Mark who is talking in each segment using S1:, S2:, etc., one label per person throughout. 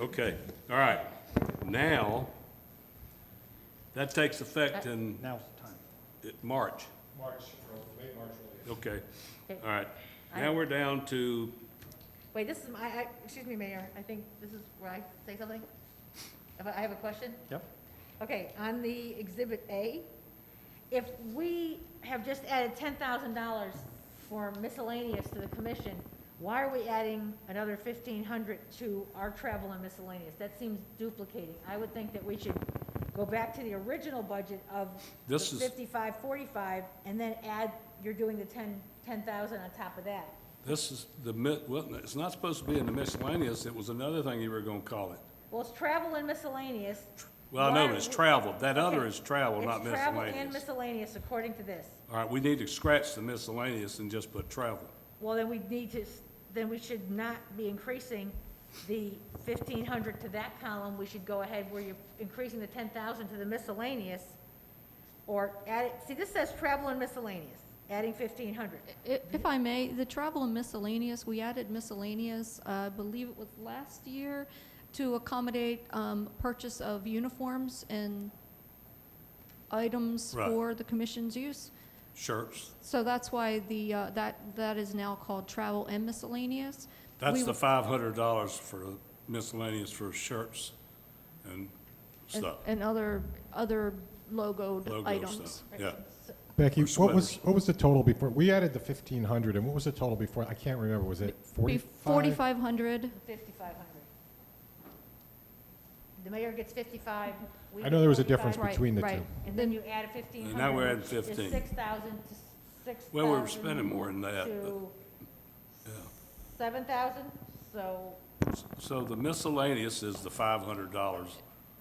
S1: Okay, all right. Now, that takes effect in
S2: Now's the time.
S1: it- March.
S3: March, late March, early
S1: Okay, all right. Now we're down to,
S4: Wait, this is my, I, excuse me, Mayor, I think this is where I say something? If I I have a question?
S2: Yep.
S4: Okay, on the Exhibit A, if we have just added ten thousand dollars for miscellaneous to the commission, why are we adding another fifteen hundred to our travel and miscellaneous? That seems duplicating. I would think that we should go back to the original budget of the
S1: This is-
S4: fifty-five, forty-five, and then add, you're doing the ten, ten thousand on top of that.
S1: this is the, mi- well, it's not supposed to be in the miscellaneous. It was another thing you were going to call it.
S4: Well, it's travel and miscellaneous.
S1: Well, I know,
S4: Why-
S1: it's travel. That other is travel,
S4: It's
S1: not
S4: travel and
S1: miscellaneous.
S4: miscellaneous, according to this.
S1: All right, we need to scratch the miscellaneous and just put travel.
S4: Well, then we need to, s- then we should not be increasing the fifteen hundred to that column. We should go ahead where you're increasing the ten thousand to the miscellaneous. Or add, it- see, this says travel and miscellaneous, adding fifteen hundred.
S5: I- If I may, the travel and miscellaneous, we added miscellaneous, uh, I believe it was last year, to accommodate um, purchase of uniforms and items
S1: Right.
S5: for the commission's use.
S1: Shirts,
S5: So that's why the, uh, that, that is now called travel and miscellaneous.
S1: that's
S5: We-
S1: the five hundred dollars for miscellaneous for shirts and
S5: and-
S1: stuff,
S5: And other, other logoed
S1: logo
S5: items.
S1: stuff, yeah.
S3: Becky,
S1: Or
S3: what was,
S1: sweaters.
S3: what was the total before, we added the fifteen hundred, and what was the total before, I can't remember, was it forty-five?
S5: Forty-five hundred,
S4: Fifty-five hundred. The mayor gets fifty-five. we
S3: I
S4: get
S3: know there was a
S4: 45.
S3: difference
S5: Right,
S3: between the
S5: right.
S3: two.
S4: And then you add a fifteen
S1: And
S4: hundred.
S1: now we're adding 15.
S4: six thousand to six thousand.
S1: Well, we were spending more than that, but-
S4: To
S1: Yeah.
S4: seven thousand, so,
S1: So the miscellaneous is the five hundred dollars,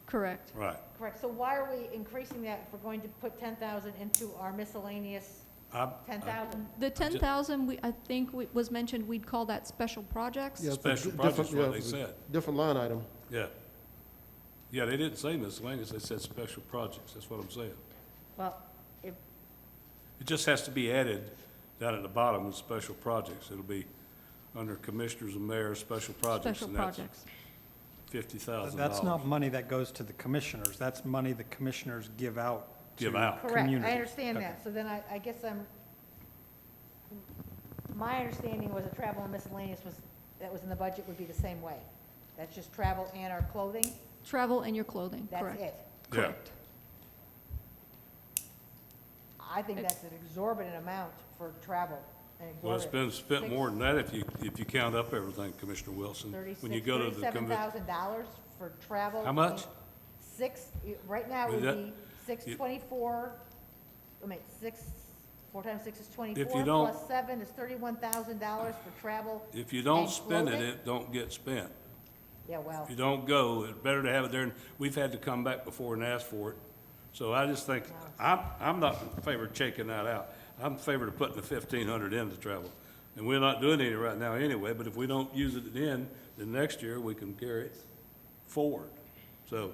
S5: correct.
S1: right.
S4: correct, so why are we increasing that if we're going to put ten thousand into our miscellaneous
S1: I-
S4: ten thousand?
S5: The ten thousand, we, I think, we- was mentioned, we'd call that special projects.
S6: Yeah, it's a
S1: Special
S6: di-
S1: project's
S6: different-
S1: what
S6: yeah,
S1: they
S6: it's a
S1: said.
S6: Different line item.
S1: Yeah. Yeah, they didn't say miscellaneous, they said special projects, that's what I'm saying.
S4: Well, if,
S1: It just has to be added down at the bottom with special projects. It'll be under commissioners and mayor's special projects,
S5: Special
S1: and that's
S5: projects.
S1: fifty thousand dollars.
S2: That's not money that goes to the commissioners. That's money the commissioners give out. to
S1: Give out.
S4: correct, I
S2: community.
S4: understand
S2: Okay.
S4: that, so then I, I guess I'm, my understanding was that travel and miscellaneous was, that was in the budget would be the same way. That's just travel and our clothing,
S5: Travel and your clothing,
S4: that's
S5: correct.
S4: it.
S1: Correct.
S4: I think that's an exorbitant amount for travel. an
S1: Well, it's been
S4: exorbitant-
S1: spent more than that if you, if you count up everything, Commissioner Wilson. When you
S4: Thirty-six,
S1: go to the
S4: thirty-seven
S1: convention,
S4: thousand dollars for travel.
S1: How much?
S4: and Six, y- right now it
S1: Is
S4: would
S1: that-
S4: be six
S1: you-
S4: twenty-four, I mean, six, four times six is twenty-four.
S1: don't-
S4: Plus seven is thirty-one thousand dollars for travel.
S1: If you don't
S4: and
S1: spend it,
S4: clothing.
S1: it don't get spent.
S4: Yeah, well,
S1: If you don't go, it's better to have it there, and we've had to come back before and ask for it. So I just think, I'm, I'm not in favor of checking that out. I'm in favor of putting the fifteen hundred in to travel. And we're not doing any right now anyway, but if we don't use it then, then next year we can carry it forward. So,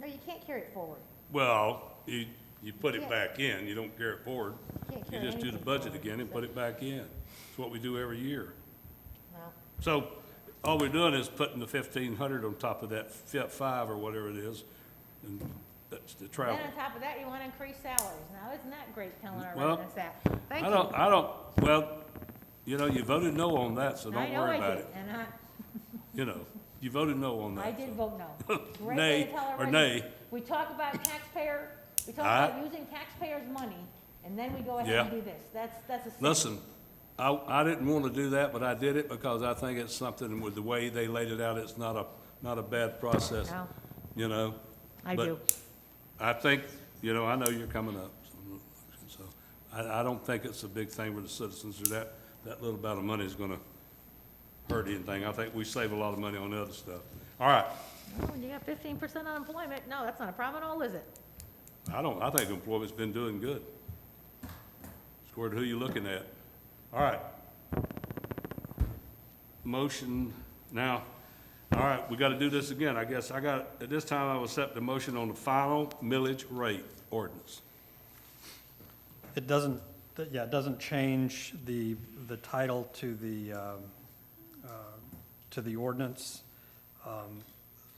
S4: no, you can't carry it forward.
S1: well, you, you put it back in, you don't carry it forward.
S4: Can't
S1: You
S4: carry
S1: just do the
S4: anything
S1: budget
S4: forward,
S1: again and
S4: so-
S1: put it back in. It's what we do every year.
S4: No.
S1: So all we're doing is putting the fifteen hundred on top of that fi- five or whatever it is, and that's the
S4: Then
S1: travel.
S4: on top of that, you want to increase salaries. Now, isn't that great telling our
S1: Well,
S4: residents that? Thank
S1: I
S4: you.
S1: don't, I don't, well, you know, you voted no on that, so
S4: I
S1: don't
S4: know
S1: worry
S4: I
S1: about
S4: did,
S1: it.
S4: And I,
S1: You know, you voted no on that.
S4: I did
S1: so.
S4: vote no. Great
S1: Nay,
S4: thing to tell our
S1: or
S4: residents.
S1: nay.
S4: We talk about taxpayer, we talk
S1: Aye.
S4: about using taxpayers' money, and then we go ahead and
S1: Yeah.
S4: do this. That's, that's a. sin.
S1: Listen, I, I didn't want to do that, but I did it because I think it's something with the way they laid it out, it's not a, not a bad process,
S4: No.
S1: you know?
S4: I
S1: But
S4: do.
S1: I think, you know, I know you're coming up, so I, I don't think it's a big thing for the citizens or that, that little amount of money is gonna hurt anything. I think we save a lot of money on other stuff. All right,
S4: Oh, You got fifteen percent unemployment. No, that's not a problem at all, is it?
S1: I don't, I think employment's been doing good. Squared, who you looking at? All right. Motion now, all right, we gotta do this again, I guess. I got, at this time, I will accept the motion on the final millage rate ordinance.
S2: It doesn't, th- yeah, it doesn't change the, the uh, title to the, um, uh, to the ordinance. Um,